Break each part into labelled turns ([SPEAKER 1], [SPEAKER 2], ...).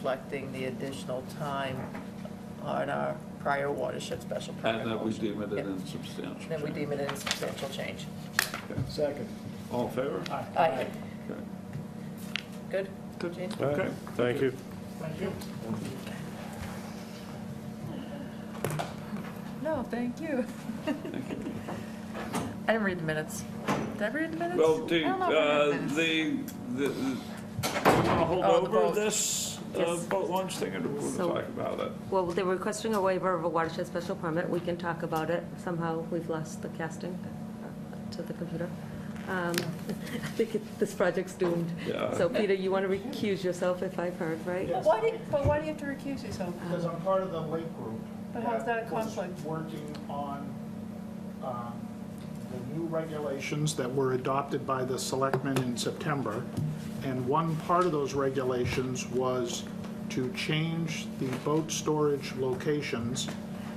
[SPEAKER 1] reflecting the additional time on our prior watershed special permit.
[SPEAKER 2] And that we
[SPEAKER 1] motion.
[SPEAKER 2] deem it
[SPEAKER 1] Yep.
[SPEAKER 2] an insubstantial.
[SPEAKER 1] Then we
[SPEAKER 2] change.
[SPEAKER 1] deem it a substantial change.
[SPEAKER 2] Okay.
[SPEAKER 3] Second.
[SPEAKER 2] All in favor?
[SPEAKER 1] Aye.
[SPEAKER 2] Okay.
[SPEAKER 1] Good?
[SPEAKER 2] Good.
[SPEAKER 1] Gene?
[SPEAKER 4] All right,
[SPEAKER 2] Okay.
[SPEAKER 4] Thank you.
[SPEAKER 1] No, thank you. I didn't read the minutes. Did I read the minutes?
[SPEAKER 2] Well,
[SPEAKER 1] I
[SPEAKER 2] do,
[SPEAKER 1] don't know if I read
[SPEAKER 2] uh,
[SPEAKER 1] the minutes.
[SPEAKER 2] the, the, do you want to hold
[SPEAKER 1] Oh, the
[SPEAKER 2] over
[SPEAKER 1] boat.
[SPEAKER 2] this uh,
[SPEAKER 5] Yes.
[SPEAKER 2] boat launch thing, and we'll
[SPEAKER 5] So-
[SPEAKER 2] talk about it?
[SPEAKER 5] Well, they're requesting a waiver of a watershed special permit. We can talk about it. Somehow, we've lost the casting to the computer. Um, I think it- this project's doomed.
[SPEAKER 2] Yeah.
[SPEAKER 5] So Peter, you want to recuse yourself if I've heard, right?
[SPEAKER 1] But why do, you- but why do you have to recuse yourself?
[SPEAKER 3] Because I'm part of the lake group.
[SPEAKER 1] But how's that a
[SPEAKER 3] that was
[SPEAKER 1] conflict?
[SPEAKER 3] Working on um, the new regulations that were adopted by the selectmen in September. And one part of those regulations was to change the boat storage locations,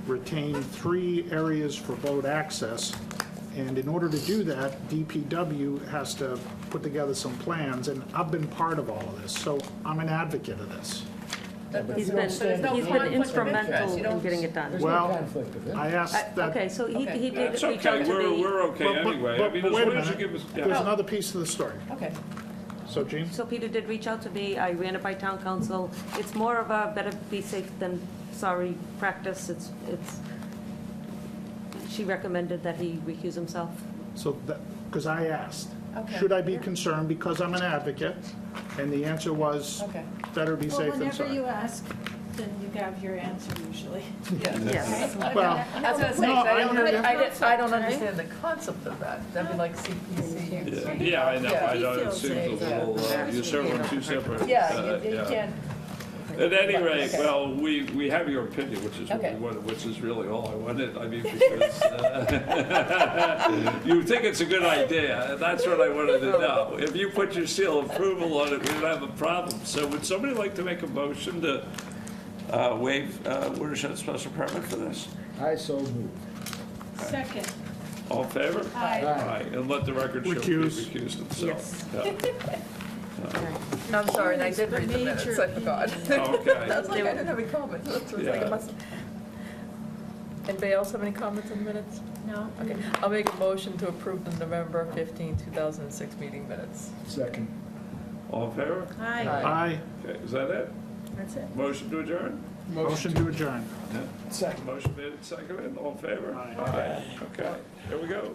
[SPEAKER 3] retain three areas for boat access. And in order to do that, DPW has to put together some plans, and I've been part of all of this, so I'm an advocate of this.
[SPEAKER 1] That
[SPEAKER 6] He's
[SPEAKER 1] doesn't-
[SPEAKER 6] been-
[SPEAKER 1] so there's no
[SPEAKER 6] he's been
[SPEAKER 1] conflict of interest.
[SPEAKER 5] instrumental
[SPEAKER 1] You
[SPEAKER 5] in
[SPEAKER 1] don't-
[SPEAKER 5] getting it done.
[SPEAKER 6] There's no
[SPEAKER 3] Well,
[SPEAKER 6] conflict of
[SPEAKER 3] I asked
[SPEAKER 6] interest.
[SPEAKER 5] I-
[SPEAKER 3] that.
[SPEAKER 5] Uh, Okay, so he
[SPEAKER 1] Okay.
[SPEAKER 5] he did
[SPEAKER 2] That's
[SPEAKER 5] reach out
[SPEAKER 2] okay,
[SPEAKER 5] to
[SPEAKER 2] we're,
[SPEAKER 5] the...
[SPEAKER 2] we're okay
[SPEAKER 3] But- but-
[SPEAKER 2] anyway. I
[SPEAKER 3] but-
[SPEAKER 2] mean,
[SPEAKER 3] but
[SPEAKER 2] as
[SPEAKER 3] wait a
[SPEAKER 2] long as you
[SPEAKER 3] minute.
[SPEAKER 2] give us,
[SPEAKER 3] There's
[SPEAKER 2] yeah.
[SPEAKER 3] another piece to the story.
[SPEAKER 1] Okay.
[SPEAKER 3] So, Gene?
[SPEAKER 5] So Peter did reach out to me. I ran it by town council. It's more of a better be safe than sorry practice. It's, it's, she recommended that he recuse himself.
[SPEAKER 3] So that, because I asked,
[SPEAKER 1] Okay.
[SPEAKER 3] should I be concerned because I'm an advocate? And the answer was,
[SPEAKER 1] Okay.
[SPEAKER 3] better be
[SPEAKER 7] Well,
[SPEAKER 3] safe than
[SPEAKER 7] whenever you
[SPEAKER 3] sorry.
[SPEAKER 7] ask, then you have your answer usually.
[SPEAKER 5] Yes.
[SPEAKER 3] Well,
[SPEAKER 1] I was gonna say, 'cause
[SPEAKER 3] No,
[SPEAKER 1] I
[SPEAKER 3] I
[SPEAKER 1] don't,
[SPEAKER 3] hear
[SPEAKER 1] under-
[SPEAKER 3] you.
[SPEAKER 1] I did- I don't understand the concept of that. That'd be like CPC.
[SPEAKER 2] Yeah, Yeah, I know, I know, it
[SPEAKER 7] feels
[SPEAKER 2] seems a little, uh, you're serving two separate.
[SPEAKER 1] Yeah,
[SPEAKER 2] uh,
[SPEAKER 1] you- you
[SPEAKER 2] yeah.
[SPEAKER 1] can't,
[SPEAKER 2] At any rate,
[SPEAKER 1] Okay.
[SPEAKER 2] well, we, we have your opinion, which is, what we
[SPEAKER 1] Okay.
[SPEAKER 2] wanted- which is really all I wanted, I mean, because uh, you think it's a good idea, and that's what I wanted to know. If you put your seal of approval on it, we don't have a problem. So would somebody like to make a motion to uh, waive uh, watershed special permit for this?
[SPEAKER 6] I so move.
[SPEAKER 7] Second,
[SPEAKER 2] All in favor?
[SPEAKER 7] aye.
[SPEAKER 2] Aye, and let the record show he
[SPEAKER 3] Recuse.
[SPEAKER 2] recused himself. Yeah.
[SPEAKER 1] no, I'm sorry, and I did read the minutes, I forgot. I
[SPEAKER 2] Okay,
[SPEAKER 1] was like, I didn't have any comments. That's what I was like, I must- Anybody else have any comments on the minutes?
[SPEAKER 7] No?
[SPEAKER 1] Okay, I'll make a motion to approve the November 15, 2006 meeting minutes.
[SPEAKER 6] Second.
[SPEAKER 2] all in favor?
[SPEAKER 7] Aye.
[SPEAKER 3] Aye,
[SPEAKER 2] Okay, is that it?
[SPEAKER 7] That's it.
[SPEAKER 2] Motion to adjourn?
[SPEAKER 3] motion to adjourn.
[SPEAKER 6] Second.
[SPEAKER 2] Motion made and seconded, all in favor?
[SPEAKER 3] Aye.
[SPEAKER 2] Aye. Okay, here we go.